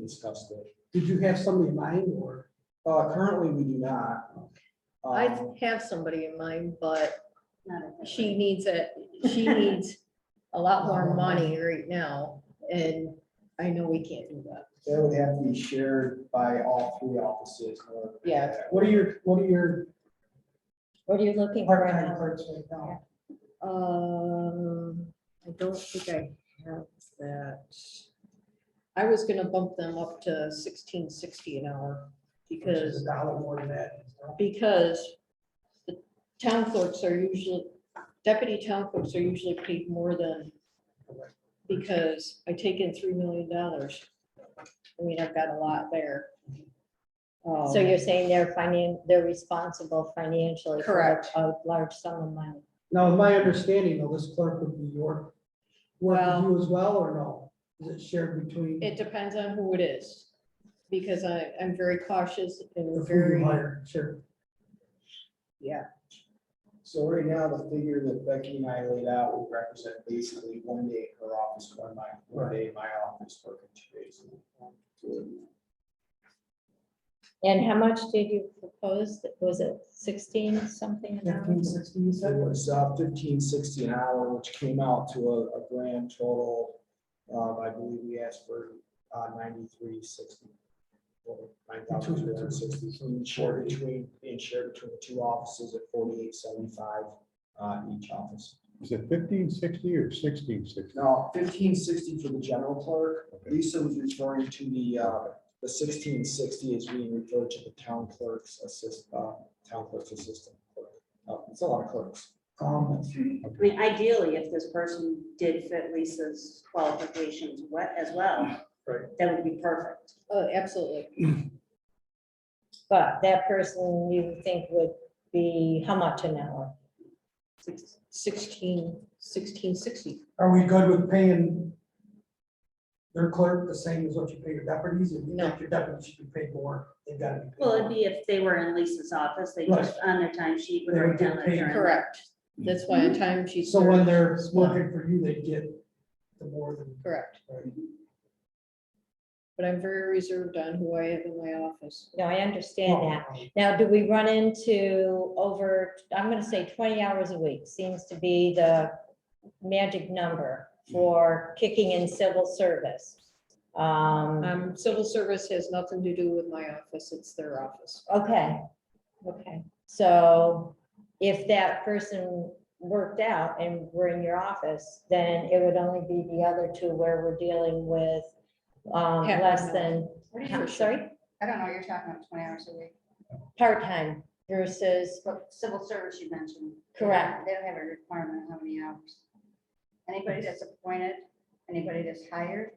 discussed it. Did you have somebody in mind or? Uh, currently, we do not. I Um, have somebody in mind, but Not at that she needs it, she needs a lot more money right now, and I know we can't do that. That would have to be shared by all three offices. or- Yeah. What are your, what are your What are you looking part-time clerks right now? Um, I don't think I have that. I was gonna bump them up to sixteen sixty an hour Which because is a dollar more than that. because the town clerks are usually, deputy town clerks are usually paid more than, because I take in three million dollars. I mean, I've got a lot there. Um, So you're saying they're finan, they're responsible financially for Correct. a large sum of money? Now, in my understanding, though, this clerk would be your, work Well- with you as well or no? Is it shared between? It depends on who it is, because I, I'm very cautious If and you very, hire, sure. yeah, So right now, the figure that Becky and I laid out would represent basically one day in her office, one my, one day in my office, working two days. And how much did you propose? Was it sixteen something? an hour? Fifteen, sixteen, you So it said? was uh, fifteen sixty an hour, which came out to a, a grand total. Um, I believe we asked for uh, ninety-three sixty. Nine thousand two hundred and sixty, shared between, and shared between the two offices at forty-eight seventy-five, uh, each office. Is it fifteen sixty or sixteen sixty? Now, fifteen sixty for the general clerk. Lisa was referring to the, uh, the sixteen sixty is being referred to the town clerk's assist, uh, town clerk's assistant. clerk. Uh, It's a lot of clerks. Um, I mean, ideally, if this person did fit Lisa's qualifications we- as well. Right. That would be perfect. oh, absolutely. But that person you think would be how much an hour? Six- Sixteen, sixteen sixty. Are we good with paying their clerk the same as what you pay your deputies? If you No. think your deputies should be paid more, they've got to be. paid Well, it'd more. be if they were in Lisa's office, they just, on their time sheet would They would write down get that paid. they're in- Correct. That's why a time she's. So when they're working for you, they get the more than. Correct. But I'm very reserved on who I have in my office. No, I understand that. Oh, Now, do we run into over, I'm gonna say twenty hours a week seems to be the magic number for kicking in civil service. Um, Um, civil service has nothing to do with my office, it's their office. okay, okay. So if that person worked out and were in your office, then it would only be the other two where we're dealing with um, Half an less hour. than, What do I'm you, sorry, I don't know, you're talking about twenty hours a week, part-time versus, but civil service you mentioned. Correct. They don't have a requirement of how many hours. Anybody that's appointed, anybody that's hired,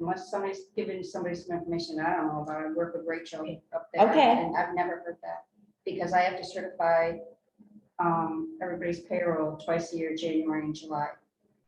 unless somebody's given somebody some information I don't know about, I work with Rachel up there. Okay. And I've never heard that, because I have to certify um, everybody's payroll twice a year, January and July.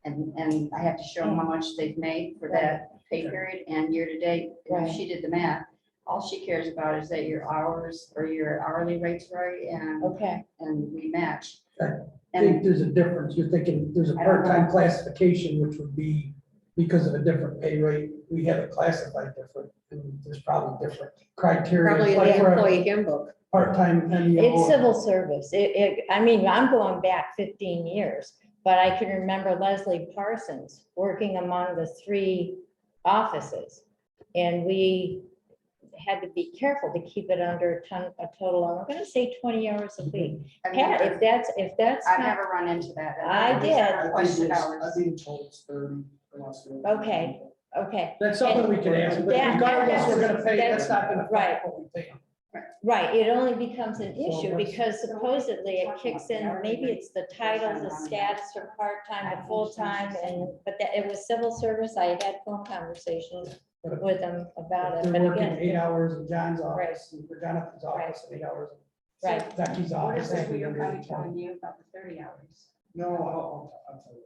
And, and I have to show them how much they've made for that pay period and year-to-date. And Right. if she did the math, all she cares about is that your hours or your hourly rates right and, okay, and we match. Okay. I think And there's a difference. You're thinking there's a I don't know. part-time classification, which would be because of a different pay rate, we have it classified different. and There's probably different criteria. Probably in like the for a employee handbook. Part-time E MEO. it's civil service, it, it, I mean, I'm going back fifteen years, but I can remember Leslie Parsons working among the three offices. And we had to be careful to keep it under a ton, a total, I'm gonna say twenty hours a week. I've Pat, if never- that's, if that's I've not, never run into that. I I've did. never I think questioned it's- hours. I think in total it's thirty. unless we- Okay. okay. That's something we can ask, but Yeah, regardless, we're gonna pay, that's that's- not gonna affect what we pay. Right, it only becomes an So issue what's- because supposedly it kicks in, maybe it's the title, the status from part-time to full-time and, but that, it was civil service, I had phone conversations with them If about it, They're but working eight again, hours in John's office, and for Jonathan's office, eight hours. in Right. Becky's What office. is this and we were then probably the- telling you about the thirty hours? No, I'll, I'll, I'll tell you.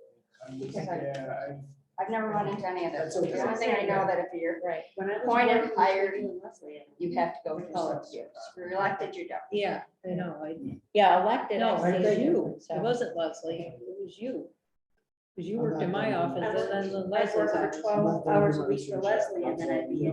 I'm just, Okay. yeah, I- I've never run into any of that. That's okay. The only thing I know that if you're, right, When I was Point of working with hire- Lee and Leslie, you have to go through Oh. six years. If you're elected, you don't. Yeah, I know, I, yeah, elected. no, I it see was the you, difference, it so. wasn't Leslie, it was you. Because you I'm worked not in my gonna- office and then the I Leslie's worked office. for twelve hours a week for Leslie and then I'd be